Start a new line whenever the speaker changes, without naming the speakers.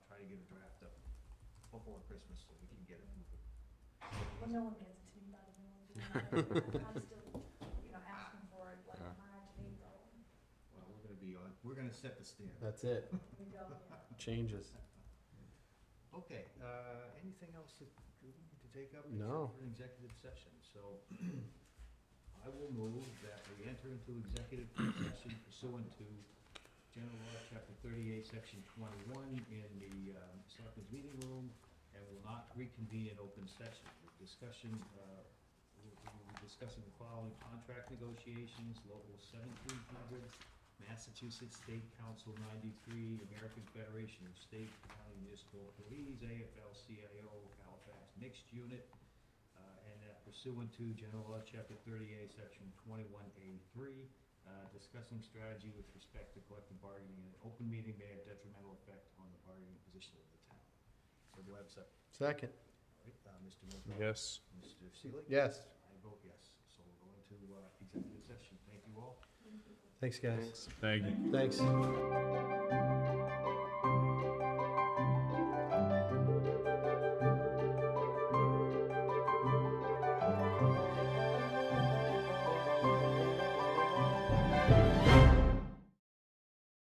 a draft up before Christmas so we can get it moving.
Well, no one gets it to me by the middle of July. I'm still, you know, asking for it like
Yeah.
March, April,
Well, we're gonna be on, we're gonna set the standard.
That's it,
we go, yeah.
changes.
Okay, uh, anything else that we need to take up?
No.
Except for an executive session, so I will move that we enter into executive session pursuant to General Law, Chapter thirty-eight, Section twenty-one, in the, um, Selectmen's Meeting Room, and will not reconvene in open session. The discussion, uh, we we will be discussing the following contract negotiations, Local seventeen hundred, Massachusetts State Council ninety-three, American Federation of State County Municipal Police, AFL-CIO, Halifax Mixed Unit, uh, and that pursuant to General Law, Chapter thirty-eight, Section twenty-one A three, discussing strategy with respect to collective bargaining in an open meeting may have detrimental effect on the bargaining position of the town. So do I have a second?
Second.
All right, uh, Mr. Mogul?
Yes.
Mr. Seelig?
Yes,
I vote yes. So we'll go into uh, executive session. Thank you all.
thanks, guys.
Thank you.
Thanks.